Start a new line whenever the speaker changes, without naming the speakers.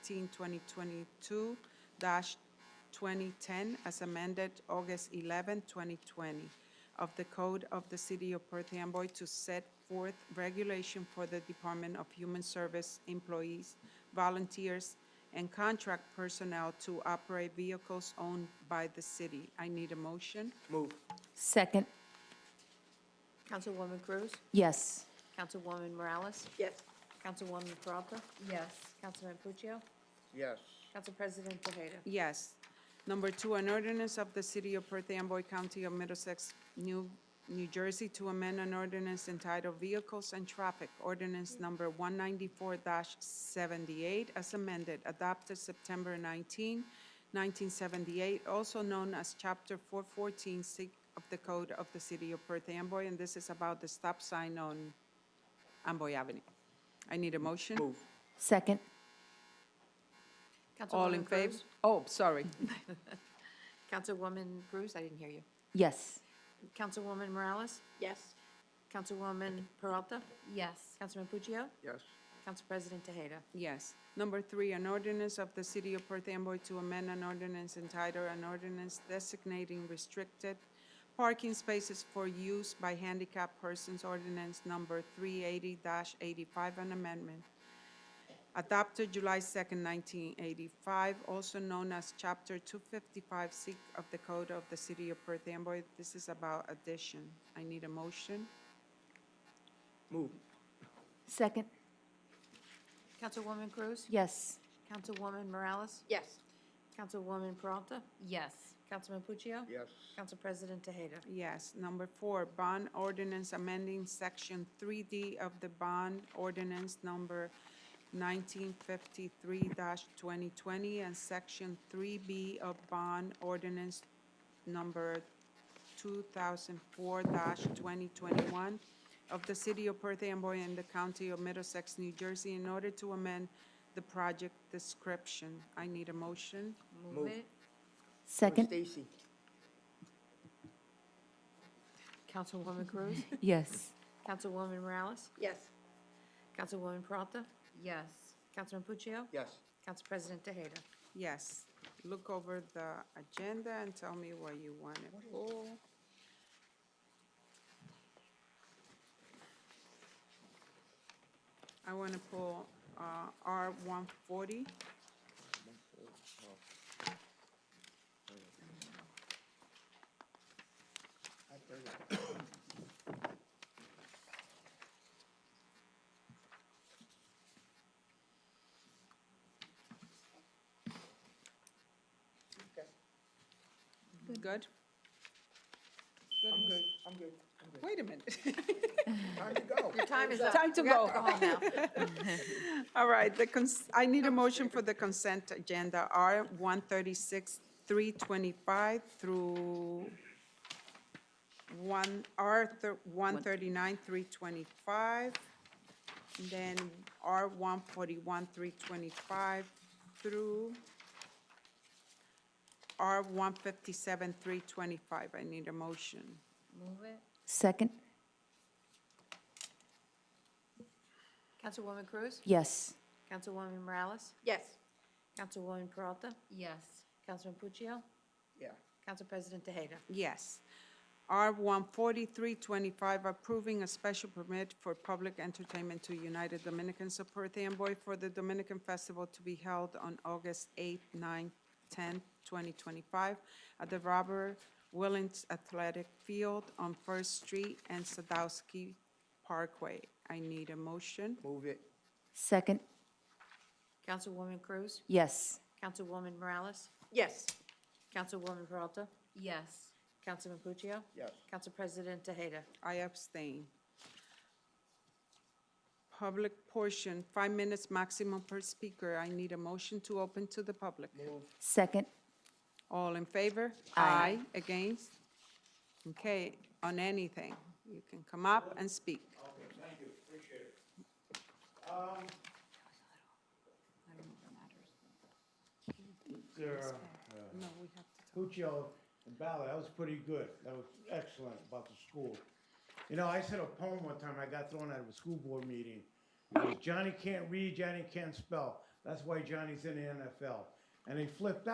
2022-2010, as amended August 11, 2020, of the Code of the City of Perth Amboy to set forth regulation for the Department of Human Service employees, volunteers, and contract personnel to operate vehicles owned by the city. I need a motion.
Move.
Second,
Councilwoman Cruz?
yes.
Councilwoman Morales?
Yes.
Councilwoman Peralta?
Yes.
Councilman Puccio?
Yes.
Council President Tejeda?
Yes. Number two, an ordinance of the City of Perth Amboy County of Middlesex, New, New Jersey, to amend an ordinance entitled Vehicles and Traffic, ordinance number 194-78, as amended, adopted September 19, 1978, also known as Chapter 414 sig- of the Code of the City of Perth Amboy, and this is about the stop sign on Amboy Avenue. I need a motion.
Move.
Second,
All in
Councilwoman
favor?
Cruz?
Oh, sorry.
Councilwoman Cruz, I didn't hear you.
yes.
Councilwoman Morales?
yes,
Councilwoman Peralta?
Yes.
Councilman Puccio?
Yes.
Council President Tejeda?
Yes. Number three, an ordinance of the City of Perth Amboy to amend an ordinance entitled an ordinance designating restricted parking spaces for use by handicapped persons, ordinance number 380-85, an amendment adopted July 2nd, 1985, also known as Chapter 255 C of the Code of the City of Perth Amboy. This is about addition. I need a motion.
Move.
Second,
Councilwoman Cruz?
yes.
Councilwoman Morales?
yes,
Councilwoman Peralta?
Yes.
Councilman Puccio?
Yes.
Council President Tejeda?
Yes. Number four, bond ordinance amending section 3D of the bond ordinance number 1953-2020 and section 3B of bond ordinance number 2004-2021 of the City of Perth Amboy and the County of Middlesex, New Jersey, in order to amend the project description. I need a motion.
Move.
Second,
Stacy.
Councilwoman Cruz?
yes.
Councilwoman Morales?
yes,
Councilwoman Peralta?
Yes.
Councilman Puccio?
Yes.
Council President Tejeda?
Yes. Look over the agenda and tell me what you want to pull. I want to pull uh, R one forty. Good?
I'm good. I'm good. I'm good.
Wait a minute.
Time to go.
Your time is up.
Time to
You have
go.
home now.
All right, the cons, I need a motion for the consent agenda, R one thirty-six, three twenty-five through one, R one thirty-nine, three twenty-five, then R one forty-one, three twenty-five through R one fifty-seven, three twenty-five. I need a motion.
Second,
Councilwoman Cruz?
yes.
Councilwoman Morales?
yes,
Councilwoman Peralta?
Yes.
Councilman Puccio?
Yeah.
Council President Tejeda?
Yes. R one forty-three twenty-five, approving a special permit for public entertainment to United Dominicans of Perth Amboy for the Dominican Festival to be held on August eighth, ninth, tenth, twenty twenty-five at the Robert Willens Athletic Field on First Street and Sadowski Parkway. I need a motion.
Move it.
Second,
Councilwoman Cruz?
yes.
Councilwoman Morales?
yes,
Councilwoman Peralta?
Yes.
Councilman Puccio?
Yes.
Council President Tejeda?
I abstain. Public portion, five minutes maximum per speaker. I need a motion to open to the public.
Second,
All in favor? Aye. Against? Okay, on anything. You can come up and speak.
Thank you, appreciate it. Um, There,
No, we have to.
Puccio and Ballard, that was pretty good. That was excellent about the school. You know, I said a poem one time, I got thrown out of a school board meeting. It was Johnny can't read, Johnny can't spell. That's why Johnny's in the NFL. And he flipped out.